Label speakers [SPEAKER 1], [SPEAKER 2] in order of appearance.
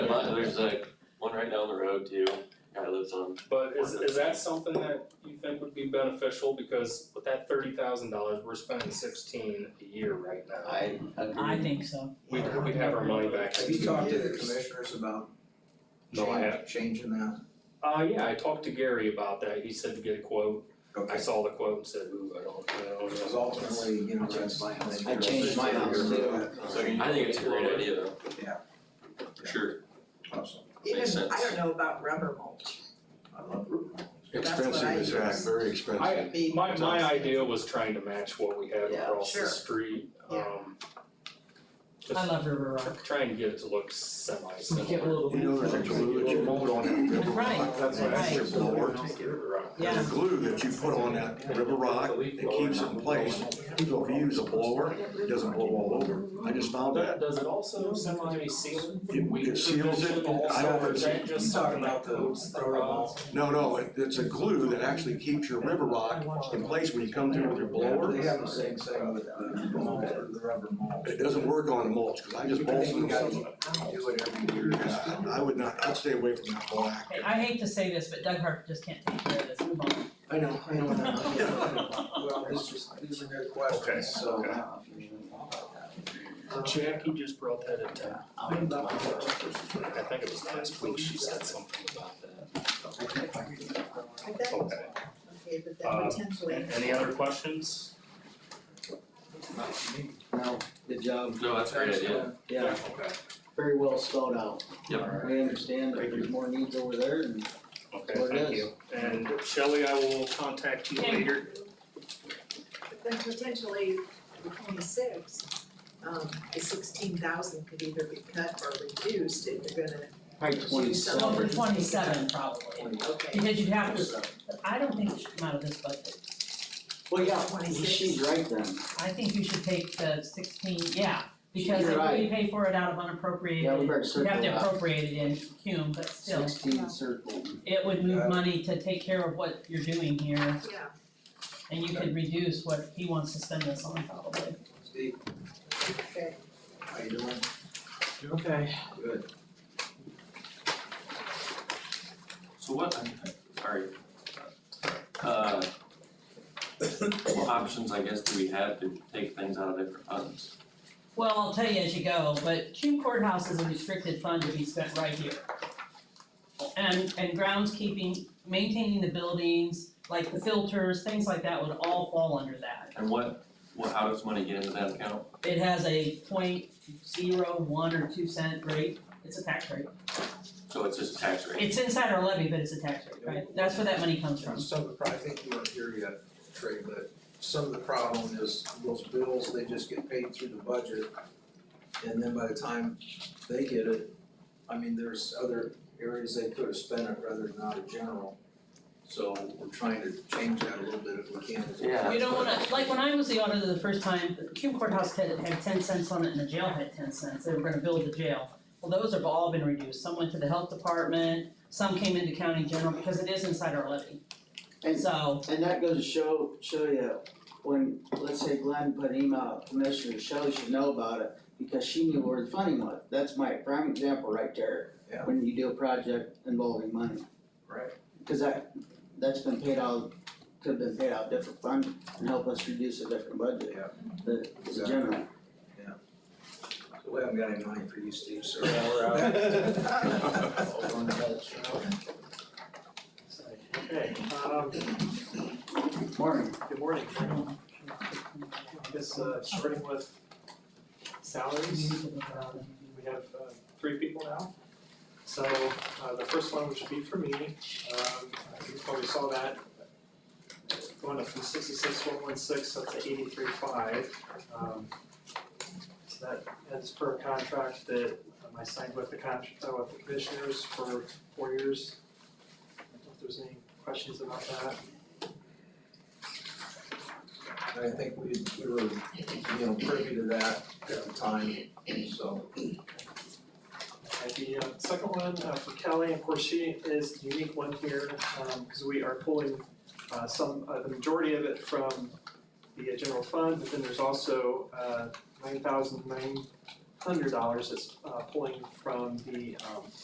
[SPEAKER 1] there's like one right down the road too, guy lives on,
[SPEAKER 2] But is, is that something that you think would be beneficial, because with that thirty thousand dollars, we're spending sixteen a year right now.
[SPEAKER 3] I
[SPEAKER 4] I
[SPEAKER 3] agree.
[SPEAKER 4] think so.
[SPEAKER 2] We'd, we'd have our money back
[SPEAKER 5] Have
[SPEAKER 2] in
[SPEAKER 5] you
[SPEAKER 2] two
[SPEAKER 5] talked to the
[SPEAKER 2] years.
[SPEAKER 5] commissioners about
[SPEAKER 2] No, I
[SPEAKER 5] change, changing that?
[SPEAKER 2] Uh, yeah, I talked to Gary about that, he said to get a quote, I
[SPEAKER 5] Okay,
[SPEAKER 2] saw the quote and said, ooh, I don't, I don't know.
[SPEAKER 5] because ultimately, you know, that's.
[SPEAKER 3] That's my house.
[SPEAKER 5] that's-
[SPEAKER 3] I changed my house too.
[SPEAKER 1] I think it's a great idea though.
[SPEAKER 5] Yeah.
[SPEAKER 1] For Sure,
[SPEAKER 5] Awesome.
[SPEAKER 6] Even,
[SPEAKER 1] Makes sense.
[SPEAKER 6] I don't know about rubber mulch,
[SPEAKER 5] I love Rubin.
[SPEAKER 6] That's
[SPEAKER 7] Expensive
[SPEAKER 6] what I
[SPEAKER 7] as heck,
[SPEAKER 6] use.
[SPEAKER 7] very expensive.
[SPEAKER 2] I-
[SPEAKER 6] be,
[SPEAKER 2] My, my idea was trying to match what we had
[SPEAKER 3] Yeah,
[SPEAKER 2] across the
[SPEAKER 6] sure.
[SPEAKER 2] street,
[SPEAKER 6] Yeah.
[SPEAKER 2] um.
[SPEAKER 4] I love River Rock.
[SPEAKER 2] Just trying to get it to look semi-similar.
[SPEAKER 4] Get a little
[SPEAKER 7] You know, there's a glue that you put on that river
[SPEAKER 4] Right,
[SPEAKER 7] rock, that's what I
[SPEAKER 4] right.
[SPEAKER 7] said, Lord. There's a glue that you put on that river rock that keeps it in place, so if you use a blower, it doesn't blow all over. I just found
[SPEAKER 2] Does,
[SPEAKER 7] that.
[SPEAKER 2] does it also semi-seal?
[SPEAKER 7] It- it seals it, I don't-
[SPEAKER 2] Or is that
[SPEAKER 5] You
[SPEAKER 2] just
[SPEAKER 5] talking
[SPEAKER 2] something
[SPEAKER 5] about
[SPEAKER 2] that uh,
[SPEAKER 5] the
[SPEAKER 2] coats the
[SPEAKER 5] rubber
[SPEAKER 2] rock?
[SPEAKER 5] mulch?
[SPEAKER 7] No, no, it- it's a glue that actually keeps your river rock in place when you come through with your blower.
[SPEAKER 5] They have the same thing with the mulch, the rubber mulch.
[SPEAKER 7] It doesn't work on mulch, cause I just bolted them.
[SPEAKER 5] Do it every year.
[SPEAKER 7] Yeah, I would not, I'd stay away from that black.
[SPEAKER 4] Hey, I hate to say this, but Doug Harper just can't take care of this, move on.
[SPEAKER 7] I know, I know.
[SPEAKER 5] Well, this is, these are good questions, so.
[SPEAKER 2] Jackie just brought that up to, I went to my first- I think it was last week, she said something about that.
[SPEAKER 6] I bet,
[SPEAKER 2] Okay,
[SPEAKER 6] okay, but
[SPEAKER 2] Uh,
[SPEAKER 6] then potentially.
[SPEAKER 2] A- any other questions?
[SPEAKER 3] No, good job,
[SPEAKER 1] no, that's a great idea,
[SPEAKER 3] yeah,
[SPEAKER 2] Okay,
[SPEAKER 3] very well spelled out.
[SPEAKER 1] Yep.
[SPEAKER 3] We understand that there's more needs over there and
[SPEAKER 2] okay,
[SPEAKER 3] Well, it
[SPEAKER 2] thank
[SPEAKER 3] is.
[SPEAKER 2] you. And Shelley, I will contact you
[SPEAKER 4] Thank
[SPEAKER 2] later.
[SPEAKER 6] But then potentially the twenty-six, um, the sixteen thousand could either be cut or reduced if you're gonna,
[SPEAKER 3] probably
[SPEAKER 6] Well,
[SPEAKER 3] twenty-seven.
[SPEAKER 6] for
[SPEAKER 4] Twenty-seven probably,
[SPEAKER 6] okay,
[SPEAKER 4] because you'd have to, I don't think it should come out of this budget.
[SPEAKER 3] Well, yeah,
[SPEAKER 6] Twenty-six.
[SPEAKER 3] she's right then.
[SPEAKER 4] I think you should take the sixteen, yeah, because
[SPEAKER 3] You're
[SPEAKER 4] if we
[SPEAKER 3] right.
[SPEAKER 4] pay for it out of
[SPEAKER 3] Yeah, we
[SPEAKER 4] unappropriated,
[SPEAKER 3] better
[SPEAKER 4] we
[SPEAKER 3] circle
[SPEAKER 4] have
[SPEAKER 3] it
[SPEAKER 4] to
[SPEAKER 3] up.
[SPEAKER 4] appropriate it in Hume, but still,
[SPEAKER 3] Sixteen circle.
[SPEAKER 4] it would move
[SPEAKER 5] Yeah.
[SPEAKER 4] money to take care of what you're doing here,
[SPEAKER 6] yeah,
[SPEAKER 4] and you could reduce what he wants to spend this on probably.
[SPEAKER 5] Steve,
[SPEAKER 6] okay.
[SPEAKER 5] how you doing?
[SPEAKER 3] Okay.
[SPEAKER 5] Good.
[SPEAKER 1] so what, sorry. Uh, what options, I guess, do we have to take things out of different funds?
[SPEAKER 4] Well, I'll tell you as you go, but Hume Courthouse is a restricted fund to be spent right here. And, and groundskeeping, maintaining the buildings, like the filters, things like that would all fall under that.
[SPEAKER 1] And what, what, how does money get into that account?
[SPEAKER 4] It has a point zero one or two cent rate, it's a tax rate.
[SPEAKER 1] So it's just tax rate,
[SPEAKER 4] It's inside our levy, but it's a tax rate, right? That's where that money comes from.
[SPEAKER 5] Some of the, pro- I think you weren't here yet, Trey, but some of the problem is those bills, they just get paid through the budget. And then by the time they get it, I mean, there's other areas they could have spent it rather than out of general. So we're trying to change that a little bit if we can.
[SPEAKER 1] Yeah.
[SPEAKER 4] You don't wanna, like, when I was the auditor the first time, the Cume Courthouse had, had ten cents on it and the jail had ten cents, they were gonna build the jail. Well, those have all been reduced, some went to the health department, some came into county general, because it is inside our levy.
[SPEAKER 3] And-
[SPEAKER 4] So,
[SPEAKER 3] And that goes to show, show you, when, let's say Glenn put an email out, Commissioner Shelley should know about it, because she knew where the funding was, that's my prime example right there.
[SPEAKER 5] Yeah.
[SPEAKER 3] When you do a project involving money,
[SPEAKER 5] Right.
[SPEAKER 3] cause that, that's been paid out, could've been paid out different fund, and help us reduce a different budget.
[SPEAKER 5] Yeah.
[SPEAKER 3] The, the general.
[SPEAKER 5] We haven't got any money for you, Steve, so.
[SPEAKER 8] Okay, um,
[SPEAKER 3] Morning.
[SPEAKER 8] good morning. I guess, uh, starting with salaries, um, we have, uh, three people now. So, uh, the first one, which would be for me, um, you probably saw that, going up from sixty-six, one one six up to eighty-three, five. Um, so that, that's per contract that um, I signed with the con, uh, with the commissioners for four years. I don't know if there's any questions about that.
[SPEAKER 5] I think we, we were, you know, privy to that at the time, so.
[SPEAKER 8] Uh, The uh, second one uh, for Kelly, of course, she is the unique one here, because we are pulling uh, some, uh, the majority of it from the uh, general fund, but then there's also nine thousand nine hundred dollars that's uh, pulling uh, from the um,